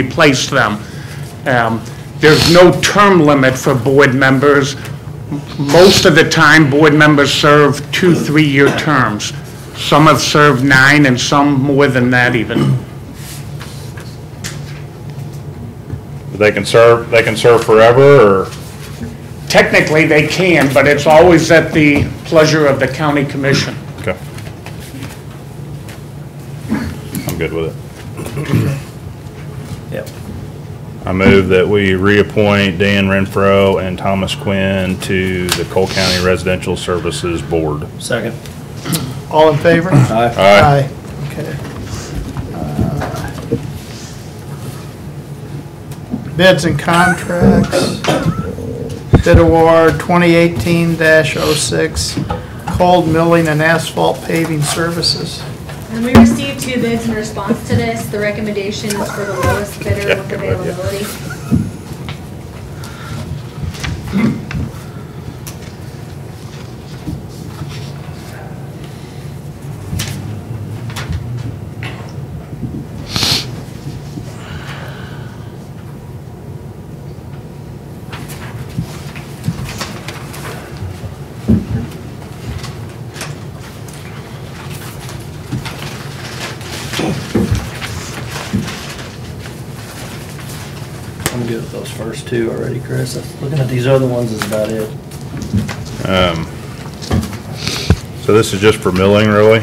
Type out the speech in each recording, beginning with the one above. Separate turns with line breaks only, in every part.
replace them. Um, There's no term limit for board members. M- Most of the time, board members serve two, three-year terms. Some have served nine, and some more than that even.
They can serve, they can serve forever, or,
Technically, they can, but it's always at the pleasure of the county commission.
okay. I'm good with it.
Yep.
I move that we reappoint Dan Renfro and Thomas Quinn to the Cole County Residential Services Board.
Second.
All in favor?
Aye.
Aye.
Okay. Bids and contracts. Bid award 2018-06, cold milling and asphalt paving services.
And we received two bids in response to this. The recommendation is for the lowest bidder with availability.
I'm good with those first two already, Chris. Looking at these other ones is about it.
So this is just for milling, really?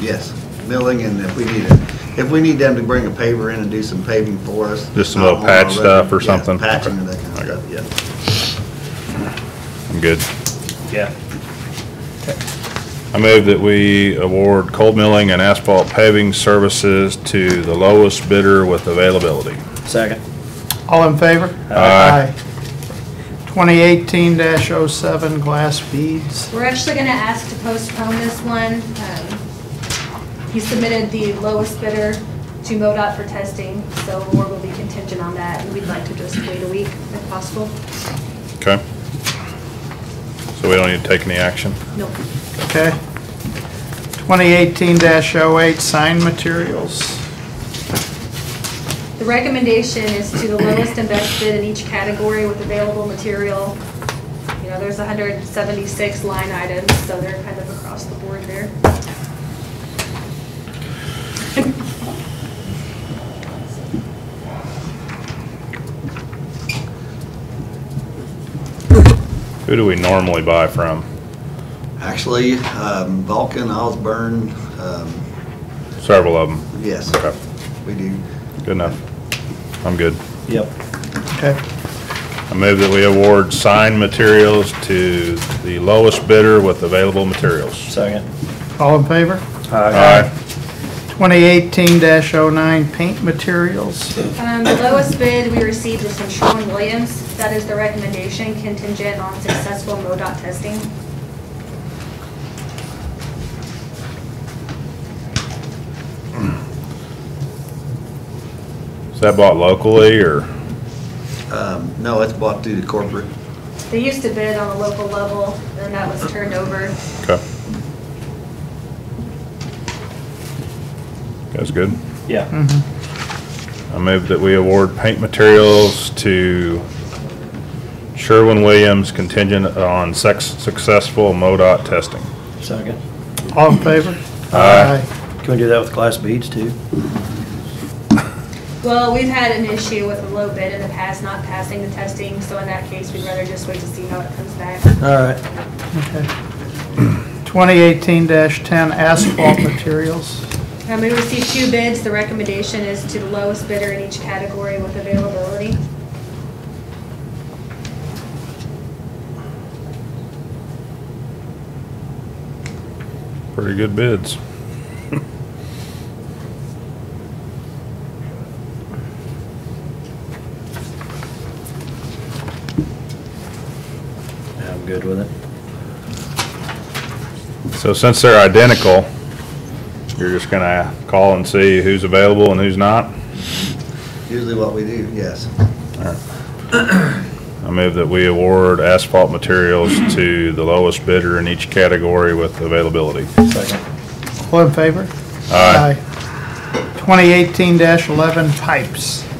Yes, milling and if we need it, if we need them to bring a paver in and do some paving for us. Uh,
Just some little
on our
patch
road,
stuff or
yes,
something?
Patching and
Okay.
that kind of stuff,
I'm good.
Yeah.
I move that we award cold milling and asphalt paving services to the lowest bidder with availability.
Second.
All in favor?
Aye.
2018-07, glass beads.
We're actually going to ask to postpone this one. Um, He submitted the lowest bidder to MoDOT for testing, so award will be contingent on that. and We'd like to just wait a week if possible.
Okay? So we don't need to take any action?
Nope.
Okay. 2018-08, sign materials.
The recommendation is to the lowest and best bid in each category with available material. You know, there's 176 line items, so they're kind of across the board there.
Who do we normally buy from?
yeah. Actually, um, Vulcan, Osborne, um,
Several of them.
yes,
Okay,
we do.
good enough. I'm good.
Yep.
Okay.
I move that we award sign materials to the lowest bidder with available materials.
Second.
All in favor?
Aye.
2018-09 paint materials.
Um, The lowest bid we received was from Sherwin Williams. That is the recommendation contingent on successful MoDOT testing.
Is that bought locally or?
Um, no, it's bought through the corporate.
They used to bid on a local level, and that was turned over.
Okay. That's good.
Yeah.
I move that we award paint materials to Sherwin-Williams contingent on sex, successful MoDOT testing.
Second.
All in favor?
Aye.
Can we do that with glass beads too?
Well, we've had an issue with a low bid in the past not passing the testing, so in that case, we'd rather just wait to see how it comes back.
All right.
Okay. 2018-10 asphalt materials.
Um, we received two bids. The recommendation is to the lowest bidder in each category with availability.
Pretty good bids.
Yeah, I'm good with it.
So since they're identical, you're just gonna call and see who's available and who's not?
Usually what we do, yes.
I move that we award asphalt materials to the lowest bidder in each category with availability.
Second.
All in favor?
Aye.
Aye. 2018-11 pipes.